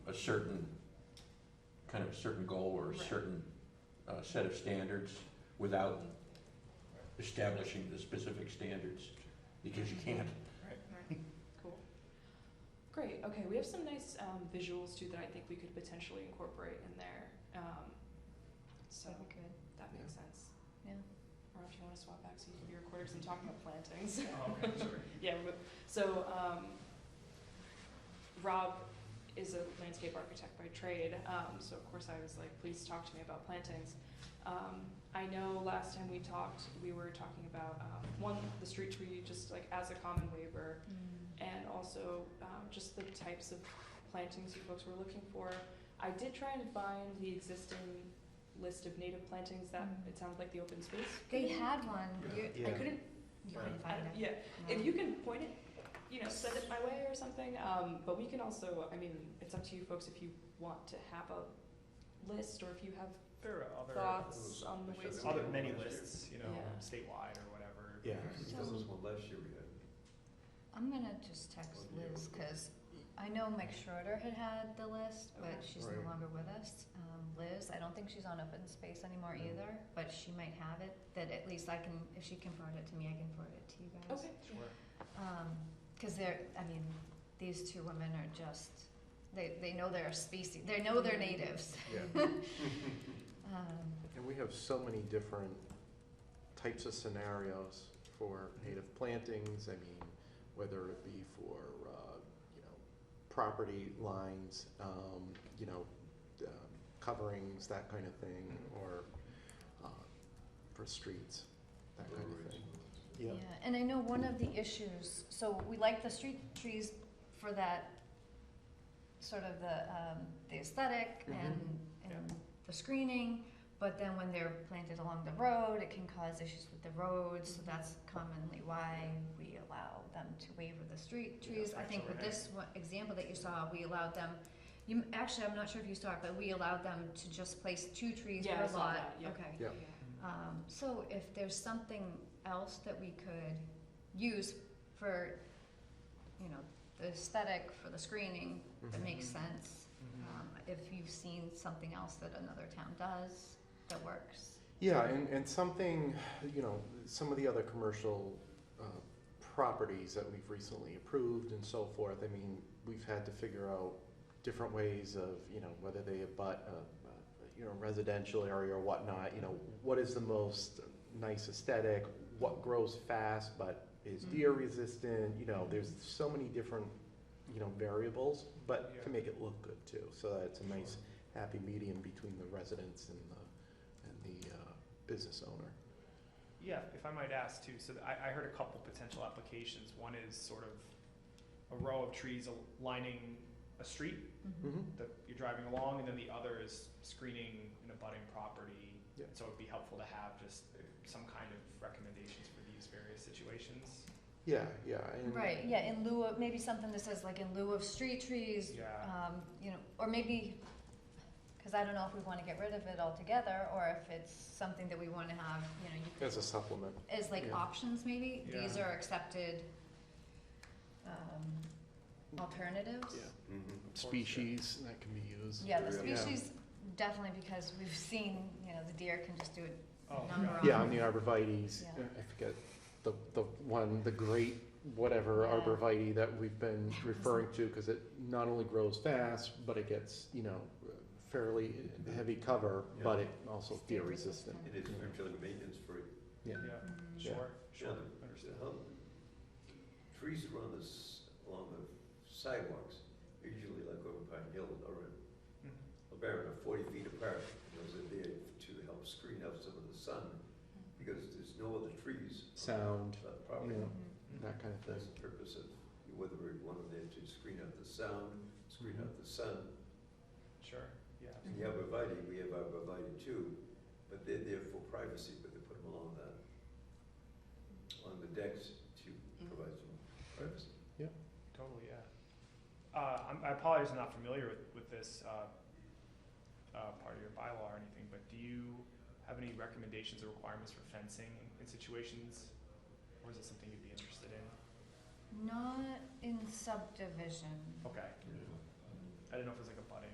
a certain, kind of certain goal or a Right. certain uh, set of standards without establishing the specific standards, because you can't. Right, cool. Great, okay, we have some nice um, visuals too that I think we could potentially incorporate in there. Um, so That'd be good. that makes sense. Yeah. Or if you want to swap back so you can be recorded, 'cause I'm talking about plantings. Oh, okay, sorry. Yeah, but- so, um, Rob is a landscape architect by trade, um, so of course I was like, please talk to me about plantings. Um, I know last time we talked, we were talking about, um, one, the street tree, just like as a common waiver, and also um, just the types of plantings you folks were looking for. I did try and find the existing list of native plantings that Mm. it sounds like the open space. They committee- had one. You, Yeah. I Yeah. couldn't. You couldn't I find Mm-hmm. don't- it. Yeah, No. if you can point it, you know, send it my way or something. Um, but we can also, I mean, it's up to you folks if you want to have a list or if you have There are other. thoughts on the I ways. should- Other many Yeah. lists, you know, Yeah. statewide or whatever. Yeah, So- there was one last year we had. I'm gonna just text Well, Liz you- because I know Mike Schroeder had had the list, but Okay. she's Right. no longer with us. Um, Liz, I don't think she's on open space anymore No. either, but she might have it. That at least I can, if she can forward it to me, I can forward it to you guys. Okay. Sure. Because they're, I mean, these two women are just, they, they know they're a species, they know they're natives. Yeah. Um, And we have so many different types of scenarios for native plantings, I mean, whether it be for, uh, you know, property lines, um, you know, um, coverings, that kind of thing, or, uh, for streets, that kind of thing. Yeah, and I know one of the issues, so we like the street trees for that, sort of the, um, the aesthetic Mm-hmm. and, and the screening, but then when they're planted along the road, it can cause issues with the roads, so that's commonly why we allow them to waiver the street Yeah, trees. I think with that's this one example that you saw, we allowed them, you, actually, I'm not sure if you saw it, but we allowed them to just place two trees Yeah, per lot. I saw that, yeah. Okay. Yeah. Um, so if there's something else that we could use for, you know, the aesthetic, for the screening, that Mhm. makes sense. Mhm. Um, if you've seen something else that another town does that works. Yeah, and, and something, you know, some of the other commercial uh, properties that we've recently approved and so forth, I mean, we've had to figure out different ways of, you know, whether they abut, uh, uh, you know, residential area or whatnot, you know, what is the most nice aesthetic, what grows fast but is Mm-hmm. E deer resistant, you know, there's so many different, you know, variables, but to Yeah. make it look good too, so that it's a nice happy medium between the residents and the and the uh, business owner. Yeah, if I might ask too, so I, I heard a couple potential applications. One is sort of a row of trees al- lining a street Mm-hmm. Mm-hmm. that you're driving along, and then the other is screening an abutting property. Yeah. So it'd be helpful to have just uh, some kind of recommendations for these various situations. Yeah, yeah. and- Right, yeah, in lieu of, maybe something that says like in lieu of street trees, Yeah, um, you know, or maybe, cause I don't know if we wanna get rid of it altogether, or if it's something that we wanna have, you know, you could As a supplement. as like Yeah. options maybe, these Yeah. are accepted um alternatives. Yeah. Mm-hmm. Species that can be used. Yeah, the Yeah. species definitely because we've seen, you know, the deer can just do it Oh, number yeah. on. Yeah, on the arborvitae's, Yeah. I forget, the, the one, the great whatever Yeah. arborvitae that we've been referring to, because it not only grows fast, but it gets, you know, fairly heavy cover, but Mm-hmm. Yeah. it also It's deer deer resistant. resistant. It is actually maintenance free. Yeah. Yeah, Mm. Yeah. sure, sure, Yeah. understood. Um, trees that are on the, s- along the sidewalks, are usually like over Pine Hill or in Mhm. LeBaron are forty feet apart. Those are there to help screen out some of the sun because there's no other trees. on Sound, that Property. yeah. Mhm. that kind of That's thing. the purpose of, whether we want them there to screen out the sound, screen out the sun, Sure, yeah. And the arborvitae, we have arborvitae too, but they're there for privacy, but they put them along the, on the decks to Mm-hmm. provide some privacy. Totally, yeah. Uh, I'm, I apologize, I'm not familiar with, with this, uh, uh, part of your bylaw or anything, but do you have any recommendations or requirements for fencing in situations? Or is it something you'd be interested in? Not in subdivision. Okay, I didn't know if it was like a